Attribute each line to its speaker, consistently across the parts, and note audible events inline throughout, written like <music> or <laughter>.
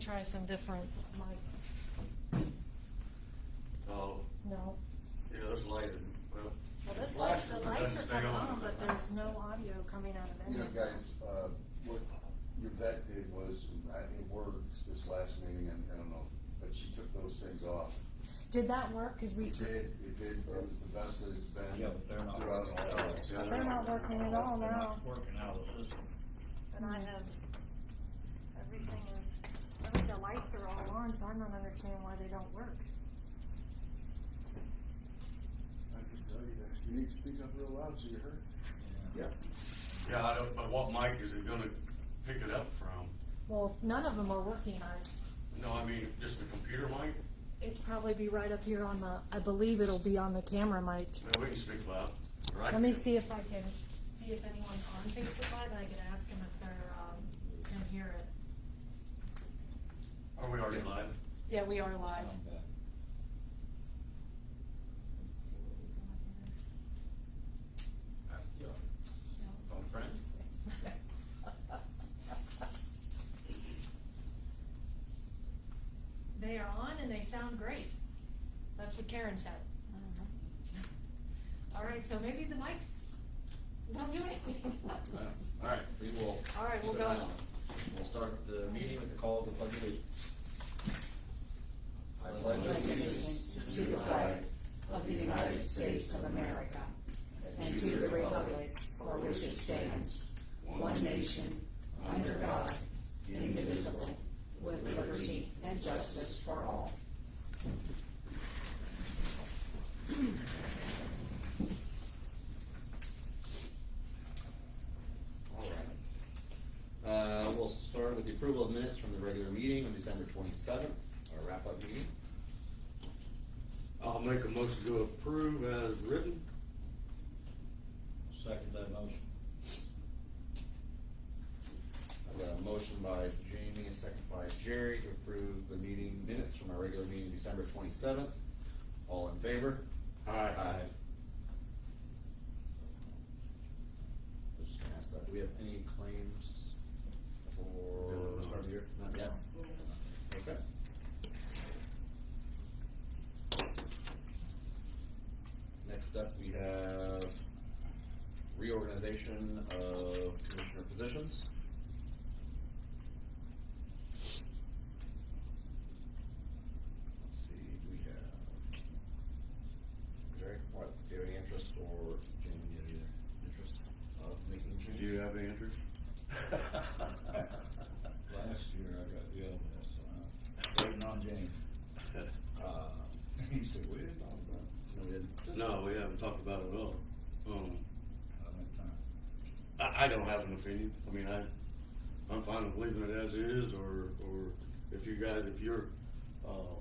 Speaker 1: try some different lights.
Speaker 2: Oh,
Speaker 1: No.
Speaker 2: yeah, that's lighted, well.
Speaker 1: Well, this light,
Speaker 2: flashes,
Speaker 1: the
Speaker 2: but
Speaker 1: lights
Speaker 2: doesn't
Speaker 1: are
Speaker 2: stay
Speaker 1: coming on, but there's no audio coming out of
Speaker 3: You
Speaker 1: any
Speaker 3: know,
Speaker 1: of them.
Speaker 3: guys, uh, what your vet did was, I it worked this last meeting, and I don't know, but she took those things off.
Speaker 1: Did that work? Cause we,
Speaker 3: It did, it did, it was the best that it's been
Speaker 4: Yeah, but they're not
Speaker 3: throughout
Speaker 4: working
Speaker 3: all of
Speaker 4: out.
Speaker 3: it.
Speaker 2: Yeah, I don't
Speaker 1: they're not
Speaker 2: know.
Speaker 1: working at all
Speaker 4: They're
Speaker 1: now.
Speaker 4: not working out of the system.
Speaker 1: And I have, everything is, I think the lights are all on, so I don't understand why they don't work.
Speaker 3: I can tell you that, you need to speak up real loud so you're heard. Yep.
Speaker 2: Yeah, I don't, but what mic is it gonna pick it up from?
Speaker 1: Well, none of them are working on it.
Speaker 2: No, I mean, just the computer mic?
Speaker 1: It's probably be right up here on the, I believe it'll be on the camera mic.
Speaker 2: No, we can speak loud, right?
Speaker 1: Let me see if I can, see if anyone's on Facebook Live, and I can ask them if they're, um, can hear it.
Speaker 2: Are we already live?
Speaker 1: Yeah, we are
Speaker 4: Yeah.
Speaker 1: live.
Speaker 4: Um, but-
Speaker 1: Let's see what we got here.
Speaker 2: Ask the audience.
Speaker 1: No.
Speaker 2: Phone friend?
Speaker 1: <laughs> They are on and they sound great. That's what Karen said. All right, so maybe the mics don't do
Speaker 2: <laughs>
Speaker 1: anything.
Speaker 5: All right, we will.
Speaker 1: All right, we'll
Speaker 5: keep an eye
Speaker 1: go.
Speaker 5: on it. We'll start the meeting with the call of the pledge of allegiance. I pledge allegiance.
Speaker 6: to the flag of the United States of America and to the republic for which it stands, one nation, under God, indivisible, with liberty and justice for all.
Speaker 5: All right. Uh, we'll start with the approval of minutes from the regular meeting on December twenty-seventh, our wrap-up meeting.
Speaker 2: I'll make a motion to approve as written.
Speaker 4: Second that motion.
Speaker 5: I've got a motion by Jamie, and second by Jerry to approve the meeting minutes from our regular meeting December twenty-seventh. All in favor? Aye. I was just gonna ask that, do we have any claims for the start of the year? Not yet? Okay. Next up, we have reorganization of commissioner positions. Let's see, do we have? Jerry, what, do you have any interest or Jamie, do you have any interest of making changes?
Speaker 2: Do you have any
Speaker 5: <laughs>
Speaker 2: interest?
Speaker 4: Last year I got the other one, so I'm waiting on James. Uh, He said, we didn't talk about it.
Speaker 5: No, we didn't.
Speaker 2: No, we haven't talked about it at all. Um,
Speaker 4: I don't have time.
Speaker 2: I, I don't have an opinion. I mean, I, I'm fine with leaving it as is, or, or if you guys, if you're, uh,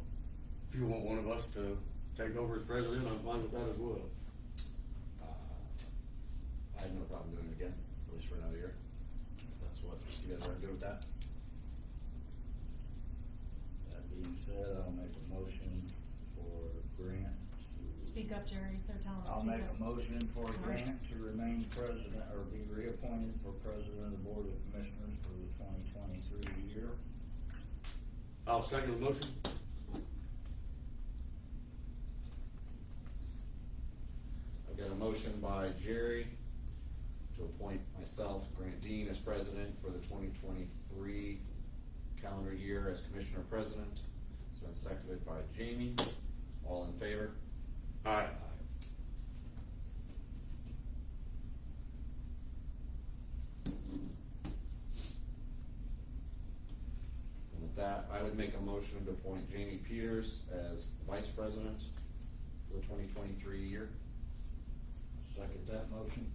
Speaker 2: if you want one of us to take over as president, I'm fine with that as well.
Speaker 5: Uh, I have no problem doing it again, at least for another year. If that's what, you guys are good with that?
Speaker 4: That being said, I'll make a motion for Grant to.
Speaker 1: Speak up, Jerry, they're telling us.
Speaker 4: I'll
Speaker 1: speak
Speaker 4: make
Speaker 1: up.
Speaker 4: a motion for Grant to remain president, or be reappointed for president of the Board of Commissioners for the twenty twenty-three year.
Speaker 2: I'll second the motion.
Speaker 5: I've got a motion by Jerry to appoint myself, Grant Dean, as president for the twenty twenty-three calendar year as commissioner president. It's been seconded by Jamie. All in favor?
Speaker 2: Aye.
Speaker 5: And with that, I would make a motion to appoint Jamie Peters as vice president for the twenty twenty-three year.
Speaker 4: Second that motion.